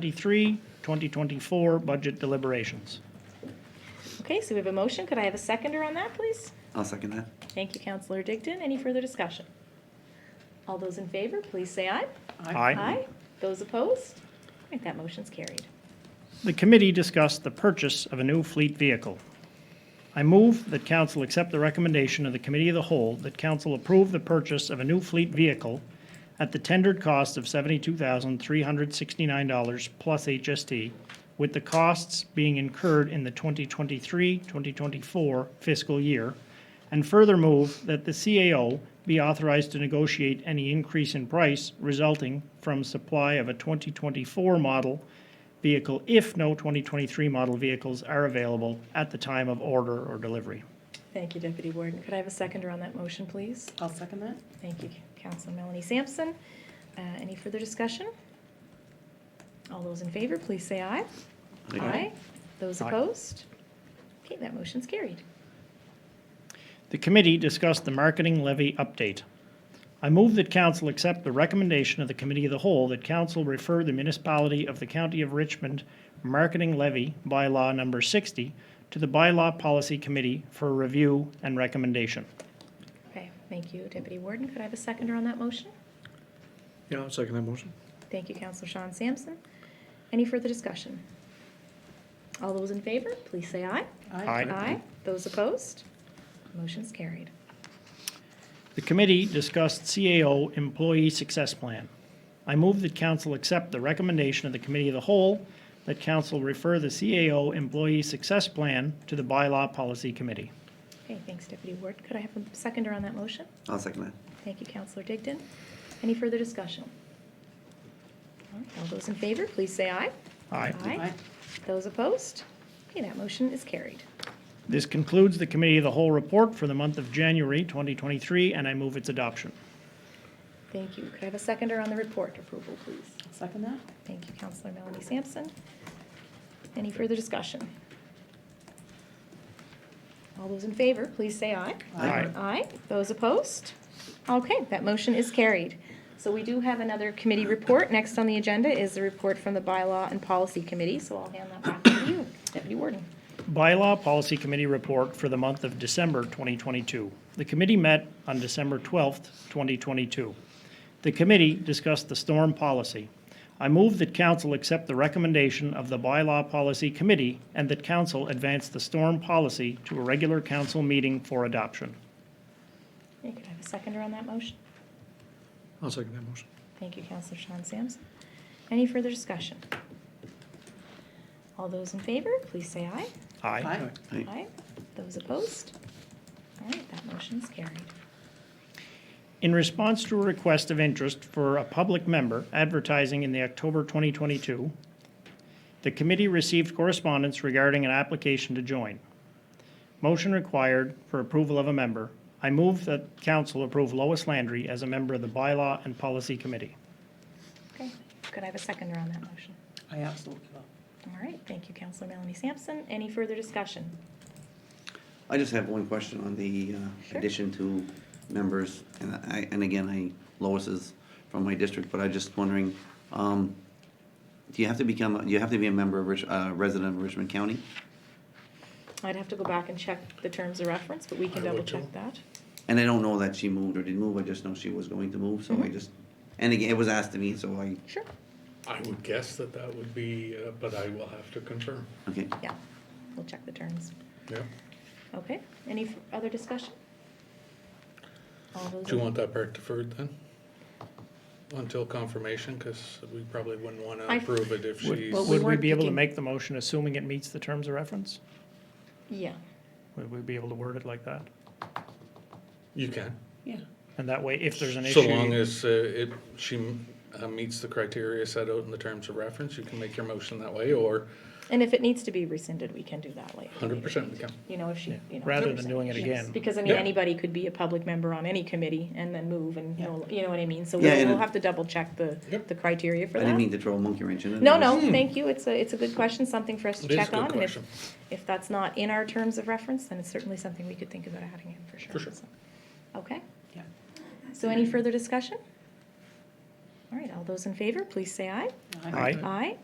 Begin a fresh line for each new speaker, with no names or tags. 2023, 2024 budget deliberations.
Okay, so we have a motion. Could I have a seconder on that, please?
I'll second that.
Thank you, Counselor Digdon. Any further discussion? All those in favor, please say aye. Aye. Those opposed? All right, that motion's carried.
The committee discussed the purchase of a new fleet vehicle. I move that council accept the recommendation of the committee of the whole that council approve the purchase of a new fleet vehicle at the tendered cost of $72,369 plus HST, with the costs being incurred in the 2023-2024 fiscal year, and further move that the CAO be authorized to negotiate any increase in price resulting from supply of a 2024 model vehicle if no 2023 model vehicles are available at the time of order or delivery.
Thank you, Deputy Warden. Could I have a seconder on that motion, please?
I'll second that.
Thank you, Counselor Melanie Sampson. Uh, Any further discussion? All those in favor, please say aye. Those
Aye.
opposed? Okay, that motion's carried.
The committee discussed the marketing levy update. I move that council accept the recommendation of the committee of the whole that council refer the municipality of the county of Richmond marketing levy bylaw number 60 to the bylaw policy committee for review and recommendation.
Okay, thank you, Deputy Warden. Could I have a seconder on that motion?
Yeah, I'll second that motion.
Thank you, Counselor Sean Sampson. Any further discussion? All those in favor, please say aye.
Aye.
Those opposed? Motion's carried.
The committee discussed CAO Employee Success Plan. I move that council accept the recommendation of the Committee of the Whole that council refer the CAO Employee Success Plan to the Bylaw Policy Committee.
Okay, thanks, Deputy Ward. Could I have a seconder on that motion?
I'll second that.
Thank you, Counselor Digdon. Any further discussion? All right, All those in favor, please say aye.
Aye.
Aye. Those opposed? Okay, that motion is carried.
This concludes the Committee of the Whole report for the month of January 2023, and I move its adoption.
Thank you. Could I have a seconder on the report approval, please?
I'll second that.
Thank you, Counselor Melanie Sampson. Any further discussion? All those in favor, please say aye.
Aye.
Aye. Those opposed? Okay, that motion is carried. So we do have another committee report. Next on the agenda is the report from the Bylaw and Policy Committee, so I'll hand that back to you, Deputy Warden.
Bylaw Policy Committee report for the month of December 2022. The committee met on December 12th, 2022. The committee discussed the storm policy. I move that council accept the recommendation of the Bylaw Policy Committee and that council advance the storm policy to a regular council meeting for adoption.
Okay, Could I have a seconder on that motion?
I'll second that motion.
Thank you, Counselor Sean Sampson. Any further discussion? All those in favor, please say aye.
Aye.
Aye.
Aye.
Aye. Those opposed? All right, that motion's carried.
In response to a request of interest for a public member advertising in the October 2022, the committee received correspondence regarding an application to join. Motion required for approval of a member. I move that council approve Lois Landry as a member of the Bylaw and Policy Committee.
Okay, could I have a seconder on that motion?
I absolutely will.
All right, thank you, Counselor Melanie Sampson. Any further discussion?
I just have one question on the uh,
Sure.
addition to members, and I, and again, I, Lois is from my district, but I just wondering, um, do you have to become, do you have to be a member of, Rich- uh, resident of Richmond County?
I'd have to go back and check the terms of reference, but we can
I
double
would
check
too.
that.
And I don't know that she moved or didn't move, I just know she was going to move,
Mm-hmm.
so I just, and again, it was asked to me, so I,
Sure.
I would guess that that would be, uh, but I will have to confirm.
okay.
Yeah, we'll check the terms.
Yeah.
Okay, any f- other discussion? All those.
Do you
in-
want that part deferred then? Until confirmation, because we probably wouldn't want to
I-
approve it if
Would
she's,
Well, we
would we
weren't
be able to
picking-
make the motion assuming it meets the terms of reference?
Yeah,
Would we be able to word it like that?
you can.
Yeah.
And that way, if there's an
So long
issue,
as uh, it, she uh, meets the criteria set out in the terms of reference, you can make your motion that way, or
and if it needs to be rescinded, we can do that later.
100% we can.
You know, if she, you know.
rather than doing it again.
Because, I mean,
Yeah.
anybody could be a public member on any committee and then move and, no- you know what I mean? So
Yeah,
we'll
and
we'll
it-
have to double check the,
Yep. Hmm.
the criteria for
I didn't mean
that.
to throw a monkey wrench in it.
No,
I
no,
just-
thank you. It's a, it's a good question, something for us to
It is a
check
good
on. and if-
question.
If that's not in our terms of reference, then it's certainly something we could think about adding in for sure.
For sure.
So, Okay,
Yeah.
so any further discussion? All right, all those in favor, please say aye.
Aye.
Aye.